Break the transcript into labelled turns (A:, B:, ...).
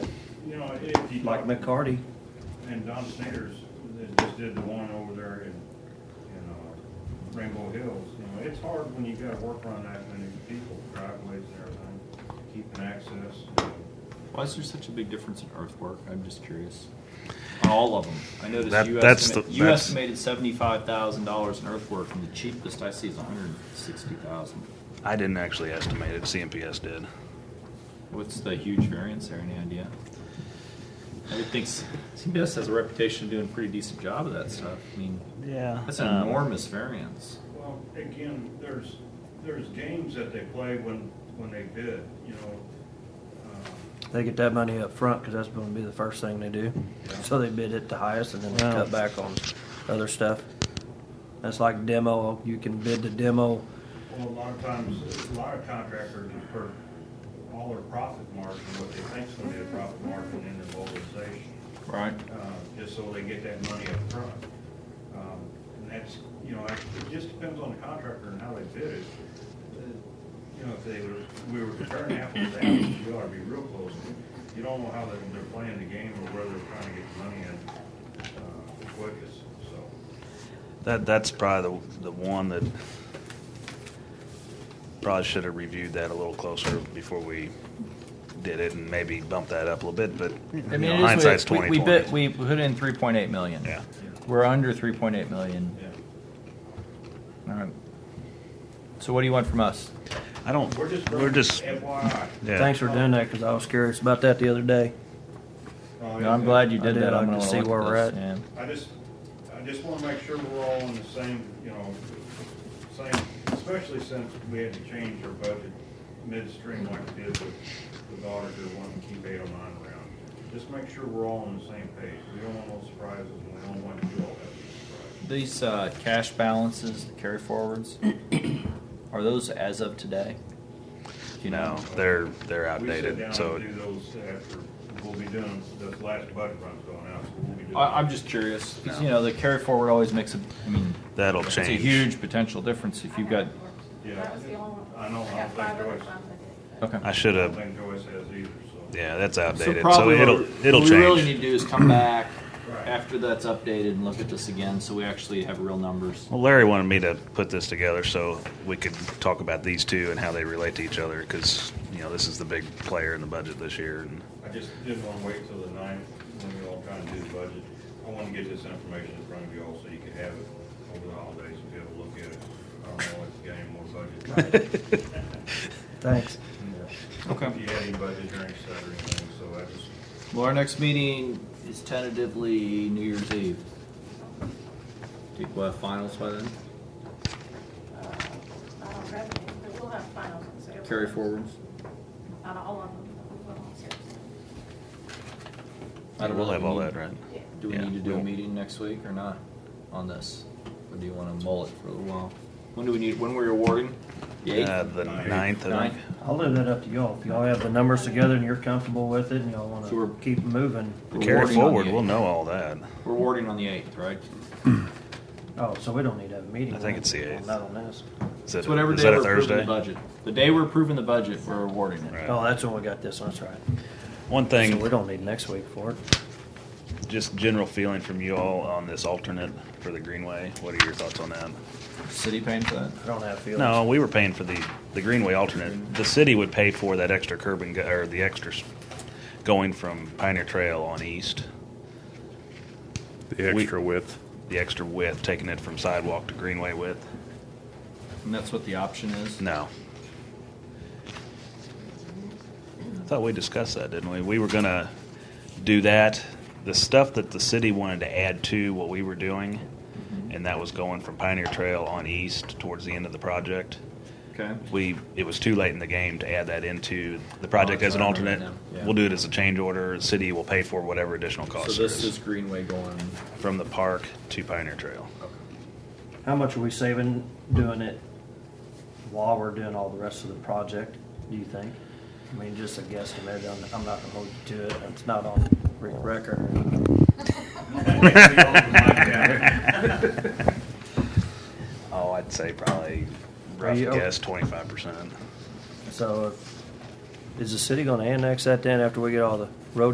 A: You know, if you.
B: like McCarty.
A: And Don Snyder's, that just did the one over there in, in uh, Rainbow Hills, you know, it's hard when you gotta work around that many people, driveways and everything, keeping access.
C: Why is there such a big difference in earthwork? I'm just curious. On all of them, I noticed
D: That-
C: you
D: that's the-
C: estimate- you
D: that's-
C: estimated seventy-five thousand dollars in earthwork, and the cheapest I see is a hundred and sixty thousand.
D: I didn't actually estimate it, CMPS did.
C: What's the huge variance there, any idea? I would think s- CBS has a reputation of doing a pretty decent job of that stuff. I mean,
D: Yeah.
C: that's an enormous variance.
A: Well, again, there's, there's games that they play when, when they bid, you know. uh,
B: They get that money up front because that's going to be the first thing they do. So they bid it the highest and then they
D: Wow.
B: cut back on other stuff. That's like demo. You can bid the demo.
A: Well, a lot of times, a lot of contractors is per, all their profit margin, what they think's gonna be a profit margin in their mobilization.
C: Right.
A: uh, just so they get that money up front, Um, And that's, you know, it just depends on the contractor and how they bid it. Uh, You know, if they were, we were comparing apples to apples, we ought to be real close. You don't know how they're, they're playing the game or where they're trying to get the money in uh, the quickest, so.
D: That, that's probably the, the one that probably should have reviewed that a little closer before we did it and maybe bump that up a little bit, but you
E: I mean,
D: know,
E: it is what it
D: hindsight's
E: is. We-
D: twenty
E: We bit,
D: twenty.
E: we put in three point eight million.
D: Yeah.
E: We're under three point eight million.
A: yeah.
E: All right. So what do you want from us?
D: I don't,
A: We're just.
D: we're just,
A: FYI.
D: yeah.
B: Thanks for doing that because I was curious about that the other day.
E: No, I'm glad you
B: I
E: did
B: do
E: that. I'm
B: like to
E: gonna wanna
B: see
E: look
B: where we're
E: this.
B: at.
E: Yeah.
A: I just, I just wanna make sure we're all on the same, you know, same, especially since we had to change our budget midstream like we did with, with auditor wanting to keep eight oh nine around. Just make sure we're all on the same page. We don't want no surprises, and we don't want you all having
E: These uh, cash balances, the carry forwards, are those as of today? Do
D: You
E: you
D: know, they're, they're
A: surprises.
D: outdated, so.
A: We sit down and do those after, we'll be doing, this last budget run's going out, so we'll be doing.
E: I, I'm just curious. 'cause,
D: No.
E: You know, the carry forward always makes a. I mean,
D: That'll
E: it's
D: change.
E: a huge potential difference if you've got.
A: Yeah.
F: That was the only one.
A: I know, I
F: got
A: don't
F: five
A: think
F: other
A: Joyce-
F: ones I did.
E: Okay.
D: I should
A: I don't
D: have,
A: think Joyce has either, so.
D: yeah, that's outdated, so
E: probably what
D: it'll,
E: we-
D: it'll
E: what we really
D: change.
E: need to do is come back
A: Right.
E: after that's updated and look at this again, so we actually have real numbers.
D: Well, Larry wanted me to put this together so we could talk about these two and how they relate to each other, because, you know, this is the big player in the budget this year, and
A: I just didn't want to wait till the ninth when you all kind of do the budget. I want to get this information in front of you all so you can have it over the holidays and be able to look at it. I don't know if you got any more budget.
B: Thanks.
A: If you had any budget hearings set or anything, so I just,
E: Well, our next meeting is tentatively New Year's Eve. Think we'll have finals by then?
F: Uh, I don't read it, but we'll have finals on sale.
E: Carry forwards?
F: Not all of them, but we will on sale.
E: I don't
D: we'll
E: know.
D: have all that, right?
F: Yeah.
E: Do we
D: Yeah,
E: need to do a
D: we'll-
E: meeting next week or not on this? Or do you want to mull it for a little while? When do we need, when we're awarding? The
D: Uh,
E: eighth?
D: the ninth, I
E: Ninth?
D: think.
B: I'll leave that up to y'all. If y'all have the numbers together and you're comfortable with it and y'all want to
E: So we're-
B: keep moving.
E: The
D: Carry
E: awarding on
D: forward,
E: the
D: we'll
E: eighth.
D: know all that.
E: We're awarding on the eighth, right?
B: Oh, so we don't need to have a meeting.
D: I think
B: then.
D: it's the
B: Well,
D: eighth.
B: Not on this.
D: Is that,
E: It's whatever
D: is
E: day
D: that a
E: we're approving the
D: Thursday?
E: budget. The day we're approving the budget, we're awarding it.
D: Right.
B: Oh, that's when we got this one. That's right.
D: One
B: So we
D: thing,
B: don't need next week for it.
D: just general feeling from you all on this alternate for the Greenway. What are your thoughts on that?
E: City paying for that?
B: I don't have feelings.
D: No, we were paying for the, the Greenway alternate. The city would pay for that extra curb and, go- or the extras going from Pioneer Trail on east,
G: The
D: We-
G: extra width.
D: the extra width, taking it from sidewalk to Greenway width.
E: And that's what the option is?
D: No. I thought we discussed that, didn't we? We were gonna do that, the stuff that the city wanted to add to what we were doing, and that was going from Pioneer Trail on east towards the end of the project.
E: Okay.
D: We, it was too late in the game to add that into the project
E: Oh,
D: as an
E: sorry, I remember
D: alternate.
E: now. Yeah.
D: We'll do it as a change order, the city will pay for whatever additional
E: So
D: costs there
E: this is
D: is
E: Greenway going.
D: from the park to Pioneer Trail.
B: How much are we saving doing it while we're doing all the rest of the project, do you think? I mean, just a guesstimate, I'm, I'm not gonna hold you to it, it's not on re- record.
D: Oh, I'd say probably
B: Are
D: rough
B: you-
D: guess twenty-five percent.
B: So, is the city gonna annex that then after we get all the